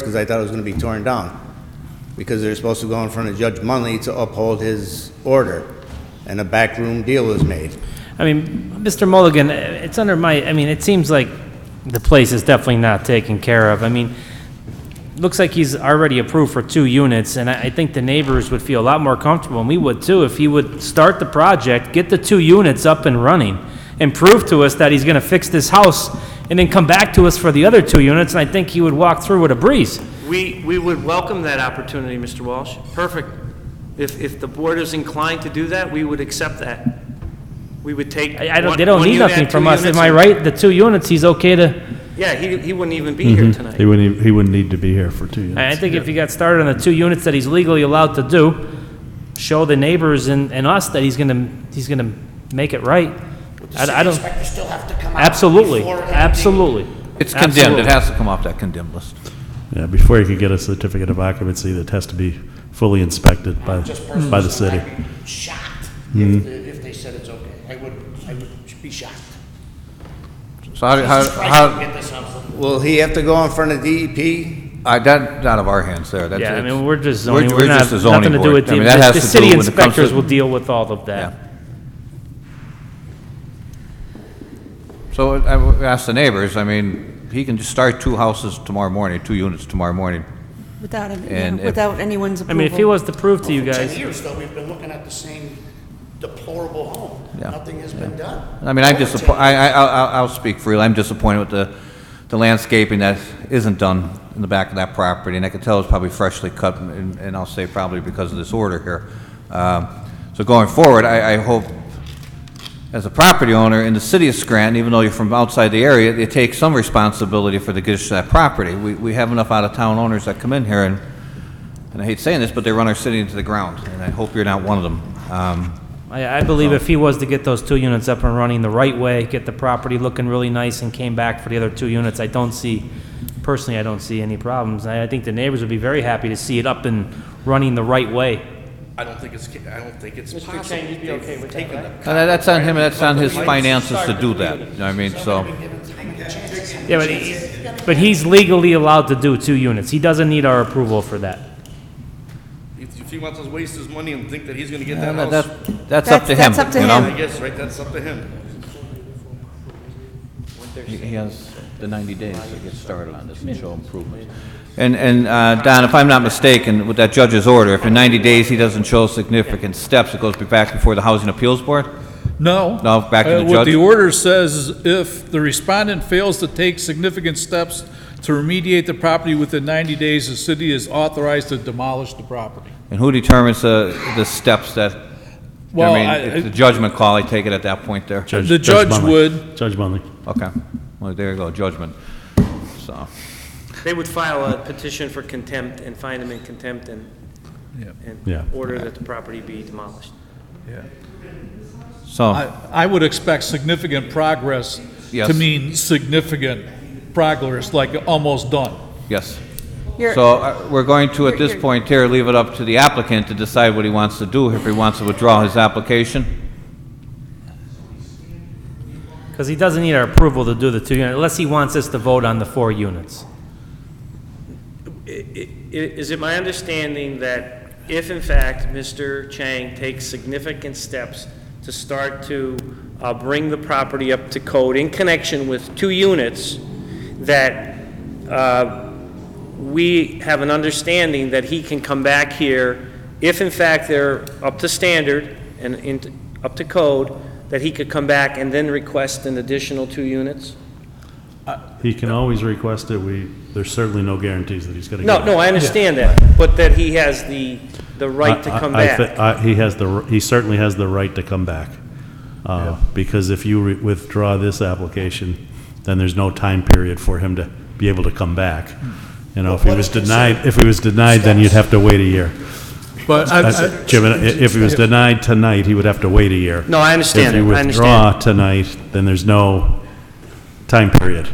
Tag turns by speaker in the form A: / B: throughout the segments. A: because I thought it was going to be torn down, because they're supposed to go in front of Judge Munley to uphold his order, and a backroom deal was made.
B: I mean, Mr. Mulligan, it's under my, I mean, it seems like the place is definitely not taken care of. I mean, looks like he's already approved for two units, and I, I think the neighbors would feel a lot more comfortable, and we would too, if he would start the project, get the two units up and running, and prove to us that he's gonna fix this house, and then come back to us for the other two units, and I think he would walk through with a breeze.
C: We, we would welcome that opportunity, Mr. Walsh. Perfect. If, if the board is inclined to do that, we would accept that. We would take.
B: I, I don't,
C: one-
B: they don't
C: one
B: need
C: unit,
B: nothing
C: two
B: from us, am
C: units,
B: I
C: and-
B: right? The two units, he's okay to
C: Yeah, he, he wouldn't even be here
D: He
C: tonight.
D: wouldn't, ev- he wouldn't need to be here for two
B: I I
D: units.
B: think if he got started on the two units that he's legally allowed to do, show the neighbors and, and us that he's gonna, he's gonna make it right. I, I don't,
E: Inspectors still have to come out.
B: absolutely,
E: before anything-
B: absolutely.
F: It's condemned,
B: Absolutely.
F: it has to come off that condemned list.
D: Yeah, before he could get a certificate of occupancy, that has to be fully inspected by,
B: Hmm.
E: Just personally,
D: by the city.
E: I'd be shocked if, the- if they said it's okay. I would, I would be shocked.
F: So how, how,
E: Jesus Christ,
F: how,
E: get this house.
A: Will he have to go in front of E DEP?
F: I, that, out of our hands there, that's.
B: Yeah, I
F: it's-
B: mean, we're just zoning,
F: we're
B: we're not,
F: just a zoning
B: nothing to do
F: board.
B: with,
F: I
B: the
F: mean, that has
B: the
F: to do
B: city
F: when it comes to-
B: inspectors will deal with all of
F: Yeah.
B: that.
F: So I w- asked the neighbors, I mean, he can just start two houses tomorrow morning, two units tomorrow morning.
G: Without, any-
F: And
G: yeah,
F: if-
G: without anyone's
B: I
G: approval.
B: mean, if he was to prove to you
E: For Ten
B: guys,
E: years though, we've been looking at the same deplorable home.
F: Yeah.
E: Nothing has been done.
F: I mean, I'm
E: Over
F: disappointed,
E: 10
F: I, I, I'll- I'll, I'll speak freely, I'm disappointed with the, the landscaping that isn't done in the back of that property, and I can tell it's probably freshly cut, and, and I'll say probably because of this order here. Um, So going forward, I, I hope, as a property owner in the city of Scranton, even though you're from outside the area, you take some responsibility for the condition of that property. We, we have enough out-of-town owners that come in here, and, and I hate saying this, but they run our city into the ground, and I hope you're not one of them. Um,
B: I, I believe if he was to get those two units up and running the right way, get the property looking really nice and came back for the other two units, I don't see, personally, I don't see any problems. I, I think the neighbors would be very happy to see it up and running the right way.
H: I don't think it's, I don't think it's possible.
C: Mr. Chang, you'd be okay with that, right?
F: And that- that's on him, and that's on his finances to do that, you know what I mean, so,
B: Yeah, but, he- but he's legally allowed to do two units. He doesn't need our approval for that.
H: If if he wants to waste his money and think that he's gonna get that
F: and
H: house,
F: that- that's up to him,
G: That's- that's up to
F: you
H: I
F: know?
G: him.
H: guess, right, that's up to him.
F: He he has the 90 days to get started on this and show improvements. And, and, uh, Don, if I'm not mistaken, with that judge's order, if in 90 days he doesn't show significant steps, it goes back before the Housing Appeals Board?
I: No.
F: No, back to
I: Uh,
F: the
I: What
F: judge.
I: the order says is if the respondent fails to take significant steps to remediate the property within 90 days, the city is authorized to demolish the property.
F: And who determines the, the steps that, you know
I: Well,
F: what
I: I-
F: I mean, it's a judgment call, I take it at that point there?
I: The judge
D: Munley.
I: would.
D: Judge Munley.
F: Okay, well, there you go, judgment, so.
C: They would file a petition for contempt and find him in contempt and,
D: Yeah.
C: and order that the property be demolished.
F: So,
I: I I would expect significant progress to
F: Yes.
I: mean significant progress, like almost done.
F: yes.
G: You're-
F: So uh, we're going to, at
G: You're-
F: this
G: you're-
F: point here, leave it up to the applicant to decide what he wants to do, if he wants to withdraw his application.
B: Because he doesn't need our approval to do the two units, unless he wants us to vote on the four units.
C: I- i- Is it my understanding that if in fact Mr. Chang takes significant steps to start to uh, bring the property up to code in connection with two units, that uh, we have an understanding that he can come back here, if in fact they're up to standard and in- up to code, that he could come back and then request an additional two units?
D: He can always request it. We, there's certainly no guarantees that he's gonna get
C: No,
D: it.
C: no, I understand that, but that he has the, the right to
D: I-
C: come
D: I- I thi-
C: back.
D: I- He has the, r- he certainly has the right to come back. Uh, Because if you re- withdraw this application, then there's no time period for him to be able to come back. You know, if he
E: What
D: was
E: is considered
D: denied, if he was denied, then you'd have to wait a year.
I: But I-
D: That's-
I: I-
D: Jim, i- if he was denied tonight, he would have to wait a year.
C: No, I understand that. I
D: If you withdraw
C: understand.
D: tonight, then there's no time period.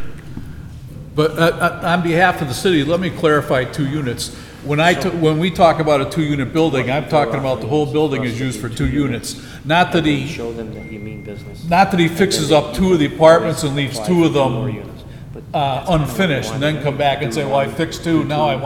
I: But uh, uh, on behalf of the city, let me clarify two units. When I, t- when we talk about a two-unit building, I'm talking about the whole building is used for two units. Not that he,
C: Show them that you mean business.
I: not that he fixes up two of the apartments and leaves two of them uh, unfinished and then come back and say, well, I fixed two, now I want